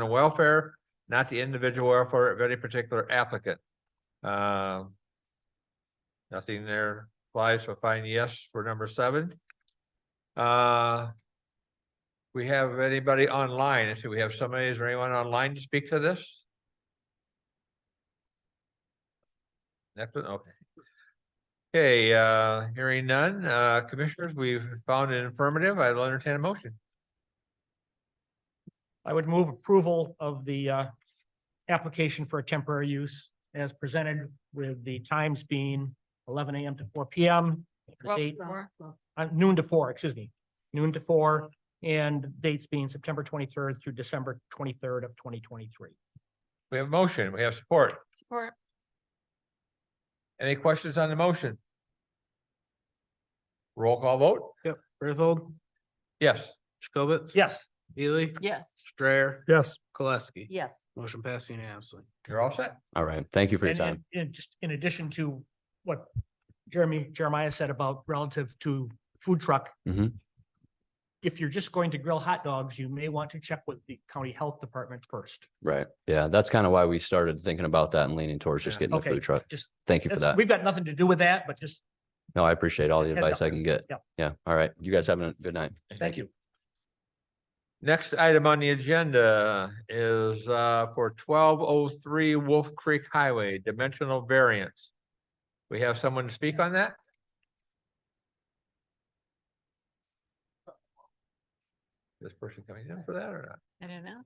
and welfare, not the individual welfare of any particular applicant. Um, Nothing there applies, so find yes for number seven. Uh, We have anybody online? Let's see, we have somebody, is there anyone online to speak to this? Next one, okay. Okay, uh, hearing none, uh, commissioners, we've found an affirmative. I'll entertain a motion. I would move approval of the uh, application for a temporary use as presented with the times being eleven AM to four PM. the Well, date- more. uh, Noon to four, excuse me, noon to four, and dates being September twenty-third through December twenty-third of twenty twenty-three. We have a motion, we have support. Support. Any questions on the motion? Roll call vote? Berthold, Yes. Jacobitz? Yes. Ely, Yes. Strayer, yes, Koleski. Yes. Motion passed unanimously. You're all set. All right. Thank you for your And- time. And and just in addition to what Jeremy Jeremiah said about relative to food truck. Mhm. If you're just going to grill hot dogs, you may want to check with the county health department first. Right. Yeah, that's kind of why we started thinking about that and leaning towards just Yeah. getting a Okay. food truck. Just, Thank you for that's- that. we've got nothing to do with that, but just No, I appreciate all the Heads advice up. I can get. Yep. Yeah. All right. You guys have a good night. thank you. Next item on the agenda is uh for twelve oh three Wolf Creek Highway dimensional variance. We have someone to speak on that? This person coming in for that or not? I don't know.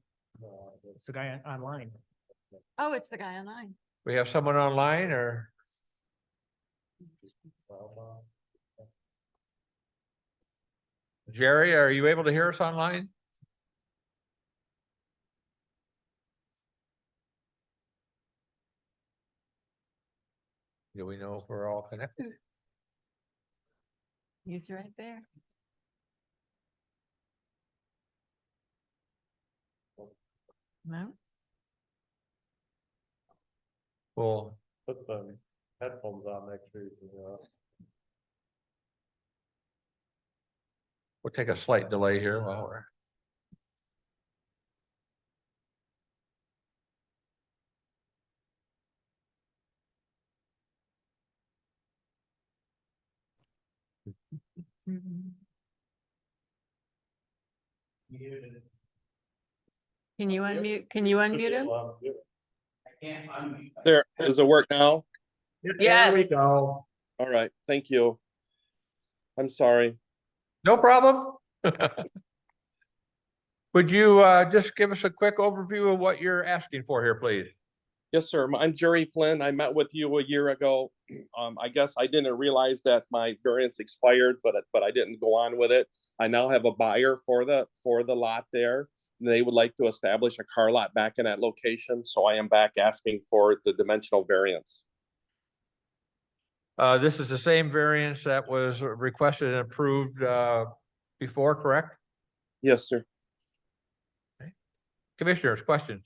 It's the guy on- online. Oh, it's the guy online. We have someone online or? Jerry, are you able to hear us online? Do we know if we're all connected? He's right there. No, Well, put some headphones on, make sure you can, uh, we'll take a slight delay here while we're. Mm-hmm. can you unmute, can you unmute him? well, yeah. There, does it work now? Yes. we go. All right, thank you. I'm sorry. No problem. Would you uh just give us a quick overview of what you're asking for here, please? Yes, sir. My- I'm Jerry Flynn. I met with you a year ago. Um, I guess I didn't realize that my variance expired, but, but I didn't go on with it. I now have a buyer for the, for the lot there. They would like to establish a car lot back in that location, so I am back asking for the dimensional variance. Uh, this is the same variance that was requested and approved, uh, before, correct? Yes, sir. Commissioners, questions?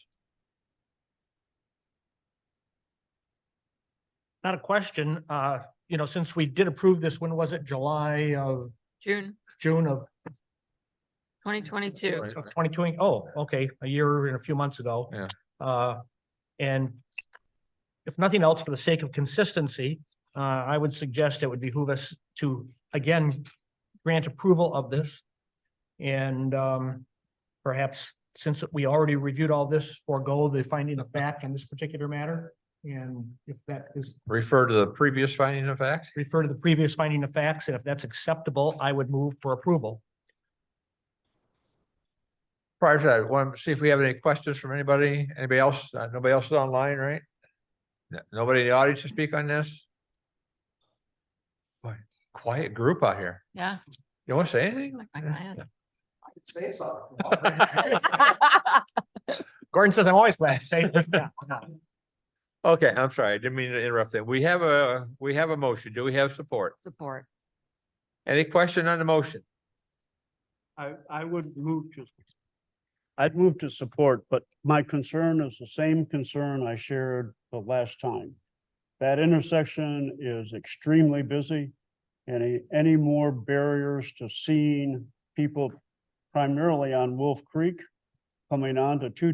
Not a question, uh, you know, since we did approve this, when was it? July of, June June of twenty twenty-two. Right. of 2020. Oh, okay, a year and a few months ago. Yeah. Uh, and if nothing else, for the sake of consistency, uh, I would suggest it would behoove us to, again, grant approval of this. And, um, perhaps since we already reviewed all this, forego the finding of fact on this particular matter. And if that is Refer to the previous finding of fact. refer to the previous finding of facts, and if that's acceptable, I would move for approval. Prior to that, want to see if we have any questions from anybody, anybody else? Uh, Nobody else is online, right? No- Nobody in the audience to speak on this? Boy, Quiet group out here. Yeah. You want to say anything? like my client. Say so. Gordon says, I'm always glad. Say- Okay, I'm sorry. I didn't mean to interrupt that. We have a, we have a motion. Do we have support? Support. Any question on the motion? I, I would move to. I'd move to support, but my concern is the same concern I shared the last time. That intersection is extremely busy. Any, any more barriers to seeing people primarily on Wolf Creek coming on to two